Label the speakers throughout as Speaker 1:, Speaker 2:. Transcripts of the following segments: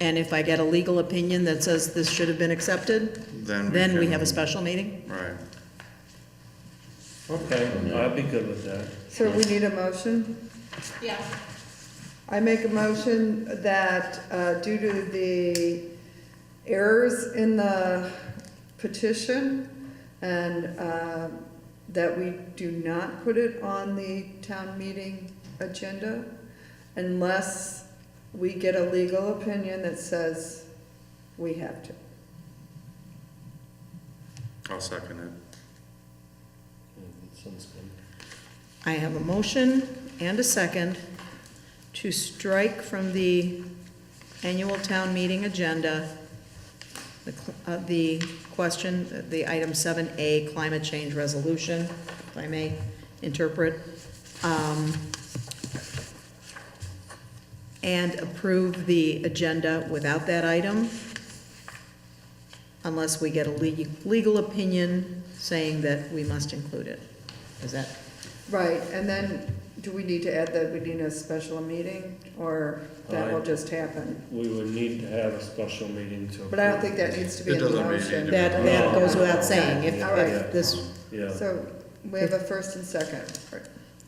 Speaker 1: And if I get a legal opinion that says this should have been accepted,
Speaker 2: Then we
Speaker 1: then we
Speaker 2: can-
Speaker 1: have a special meeting?
Speaker 2: Right.
Speaker 3: Okay, I'd be good with that.
Speaker 4: So we need a motion?
Speaker 5: Yeah,
Speaker 4: I make a motion that uh, due to the errors in the petition and uh, that we do not put it on the town meeting agenda unless we get a legal opinion that says we have to.
Speaker 2: I'll second it.
Speaker 3: Sounds good.
Speaker 1: I have a motion and a second to strike from the annual town meeting agenda the cl- uh, the question, the item 7A, climate change resolution, if I may interpret, um, and approve the agenda without that item unless we get a le- legal opinion saying that we must include it. Is that
Speaker 4: Right, and then do we need to add that we need a special meeting or that will
Speaker 3: Aye.
Speaker 4: just happen?
Speaker 3: We would need to have a special meeting to.
Speaker 4: But I don't think that needs to be
Speaker 2: It
Speaker 4: in the
Speaker 2: doesn't really
Speaker 4: motion.
Speaker 2: need to be.
Speaker 1: That, that goes without saying, if,
Speaker 4: Oh,
Speaker 1: if this,
Speaker 3: Yeah,
Speaker 4: So we have a first and second.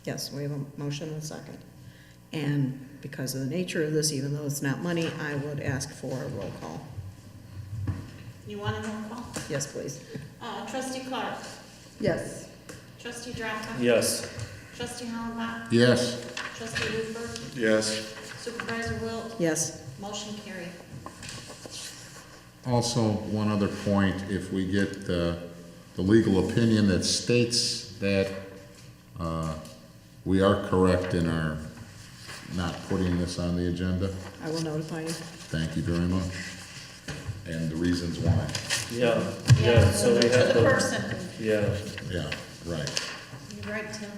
Speaker 1: yes, we have a motion and a second. And because of the nature of this, even though it's not money, I would ask for a roll call.
Speaker 5: you want a roll call?
Speaker 1: Yes, please.
Speaker 5: Uh, trustee Clark,
Speaker 4: Yes,
Speaker 5: trustee Drapka.
Speaker 3: yes,
Speaker 5: Trustee Hollenbach,
Speaker 6: Yes,
Speaker 5: trustee Hooper,
Speaker 2: Yes,
Speaker 5: supervisor Wilt,
Speaker 1: Yes,
Speaker 5: motion carried.
Speaker 6: also, one other point, if we get the, the legal opinion that states that, uh, we are correct in our not putting this on the agenda,
Speaker 1: I will notify you.
Speaker 6: thank you very much, and the reasons why,
Speaker 3: yeah, yeah, so we have
Speaker 5: To the
Speaker 3: to,
Speaker 5: person,
Speaker 3: yeah,
Speaker 6: yeah, right.
Speaker 5: you're right, Tim.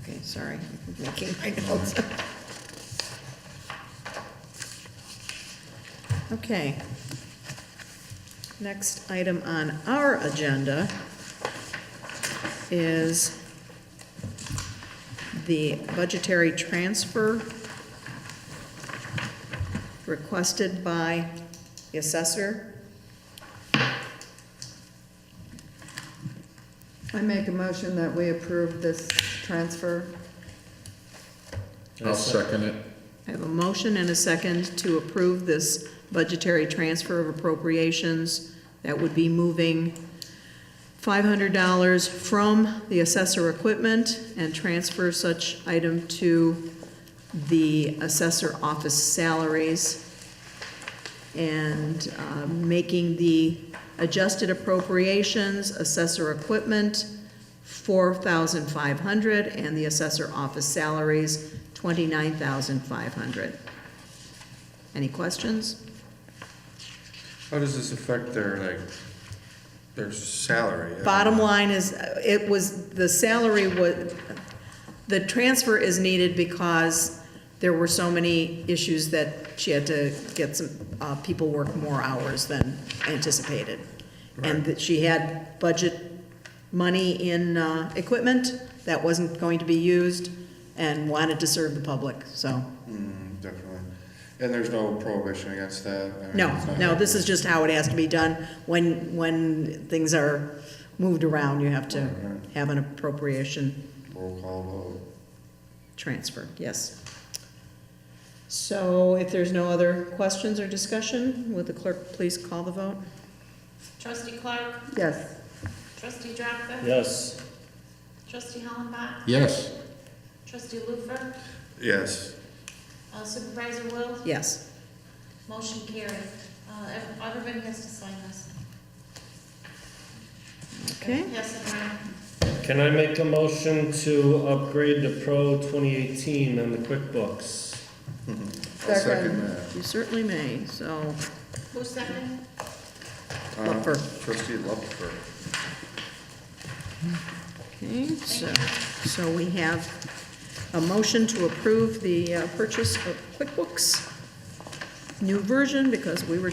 Speaker 1: Okay, sorry, I'm making my notes. Okay. Next item on our agenda is the budgetary transfer requested by the assessor.
Speaker 4: I make a motion that we approve this transfer.
Speaker 6: I'll second it.
Speaker 1: I have a motion and a second to approve this budgetary transfer of appropriations. That would be moving $500 from the assessor equipment and transfer such item to the assessor office salaries. And uh, making the adjusted appropriations, assessor equipment, 4,500, and the assessor office salaries, 29,500. Any questions?
Speaker 2: how does this affect their, like, their salary?
Speaker 1: Bottom line is, uh, it was, the salary was, the transfer is needed because there were so many issues that she had to get some, uh, people work more hours than anticipated. And that she had budget money in, uh, equipment that wasn't going to be used and wanted to serve the public, so.
Speaker 2: Mm, Definitely. And there's no prohibition against that? I mean,
Speaker 1: No,
Speaker 2: it's not-
Speaker 1: no, this is just how it has to be done. When, when things are moved around, you have to have an appropriation
Speaker 2: Roll call vote.
Speaker 1: transfer, yes. So if there's no other questions or discussion, would the clerk please call the vote?
Speaker 5: Trustee Clark,
Speaker 4: Yes,
Speaker 5: trustee Drapka.
Speaker 3: yes,
Speaker 5: Trustee Hollenbach,
Speaker 6: Yes,
Speaker 5: trustee Lufer,
Speaker 2: Yes,
Speaker 5: uh, supervisor Wilt,
Speaker 1: Yes.
Speaker 5: motion carried. Uh, ev- everybody has to sign this.
Speaker 1: Okay.
Speaker 5: Yes, and Ryan.
Speaker 3: can I make a motion to upgrade the Pro twenty eighteen on the QuickBooks?
Speaker 2: I'll
Speaker 4: Second.
Speaker 2: second that.
Speaker 1: You certainly may, so,
Speaker 5: who's second?
Speaker 2: Uh,
Speaker 1: Lupfer.
Speaker 2: Trustee Lupfer.
Speaker 1: okay, so, so we have a motion to approve the uh, purchase of QuickBooks new version because we were